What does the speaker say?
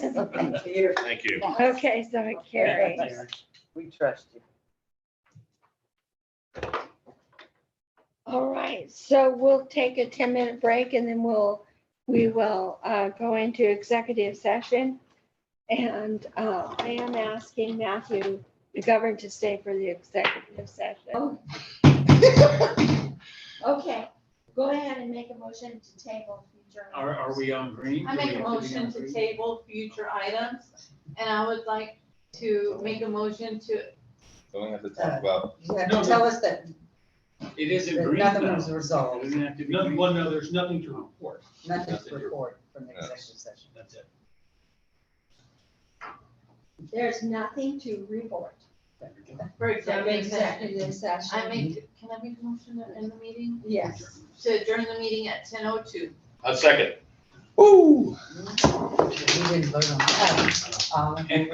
Thank you. Thank you. Okay, so it carries. We trust you. All right, so we'll take a ten-minute break and then we'll, we will uh, go into executive session. And uh, I am asking Matthew McGovern to stay for the executive session. Okay, go ahead and make a motion to table future. Are, are we on green? I Do we make have a be on motion to green? table future items, and I would like to make a motion to, Don't we have to talk about, You have No, to no. tell us that It is in that green nothing now. was It resolved, doesn't have to be. None, green. well, no, there's nothing to report. nothing's Nothing. recorded from the Yeah. executive session. That's it. There's nothing to report. for From executive session. executive session. I make, can I make a motion to end the meeting? Yes. To adjourn the meeting at ten oh two. A second. We didn't vote on that. All in And